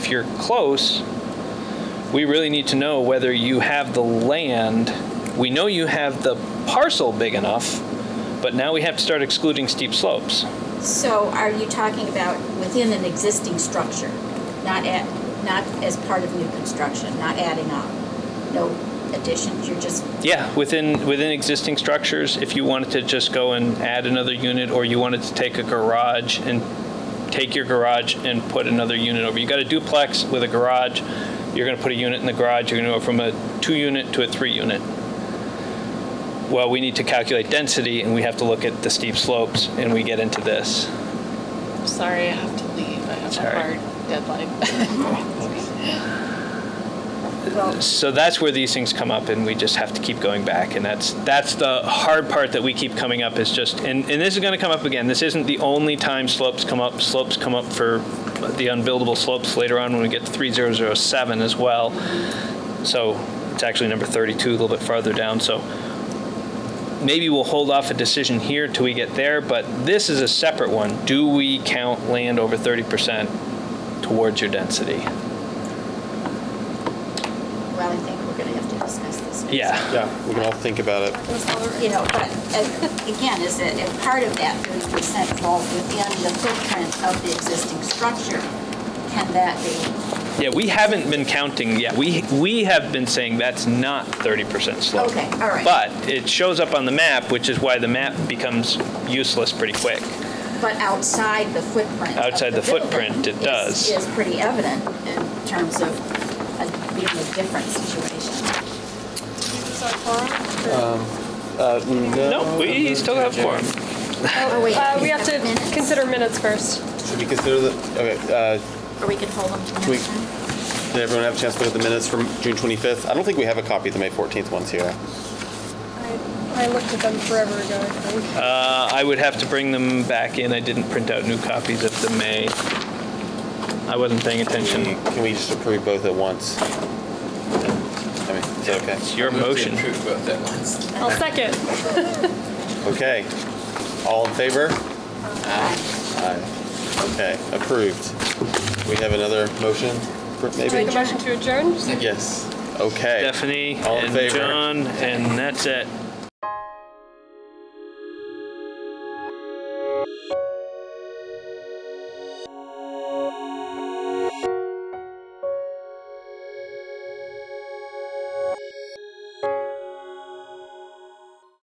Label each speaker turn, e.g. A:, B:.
A: you're close, we really need to know whether you have the land. We know you have the parcel big enough, but now we have to start excluding steep slopes.
B: So are you talking about within an existing structure, not at, not as part of new construction, not adding on? No additions, you're just,
A: Yeah, within, within existing structures, if you wanted to just go and add another unit, or you wanted to take a garage and take your garage and put another unit over. You got a duplex with a garage, you're gonna put a unit in the garage, you're gonna go from a two-unit to a three-unit. Well, we need to calculate density, and we have to look at the steep slopes, and we get into this.
C: Sorry, I have to leave. I have
A: Sorry.
C: a hard deadline.
B: well,
A: So that's where these things come up, and we just have to keep going back. And that's that's the hard part that we keep coming up is just, and, and this is going to come up again. This isn't the only time slopes come up. Slopes come up for the unbuildable slopes later on when we get to 3007 as well. So it's actually number 32, a little bit farther down. So maybe we'll hold off a decision here till we get there, but this is a separate one. Do we count land over 30% towards your density?
B: well, I think we're gonna have to discuss this. next.
A: Yeah.
D: Yeah, we can all think about it.
B: You know, but uh, again, is that if part of that thirty percent falls within the footprint of the existing structure, can that be?
A: Yeah, we haven't been counting yet. We, we have been saying that's not 30% slope.
B: Okay, all right.
A: But it shows up on the map, which is why the map becomes useless pretty quick.
B: But outside the footprint. of
A: Outside the footprint,
B: building
A: it does.
B: Is is pretty evident in terms of a- being a different situation.
E: Um,
A: No, we still have Uh, form.
B: Oh, wait,
E: Uh, we have to
B: minutes?
E: consider minutes first.
D: Should we consider the, okay, uh,
B: Or we could hold them to the
D: We-
B: next time?
D: did everyone have a chance to look at the minutes from June 25th? I don't think we have a copy of the May 14th ones here.
E: I, I looked at them forever ago, I think.
A: Uh, I would have to bring them back in. I didn't print out new copies of the May. I wasn't paying
D: Can we-
A: attention.
D: can we just approve both at once? I mean, is that okay?
A: It's your motion.
E: I'll second.
D: Okay. All in favor? Aye. Okay, approved. We have another motion, for-
E: Make
D: maybe?
E: a motion to adjourn?
D: Yes. Okay.
A: Stephanie
D: All in
A: and
D: favor?
A: John, and that's it.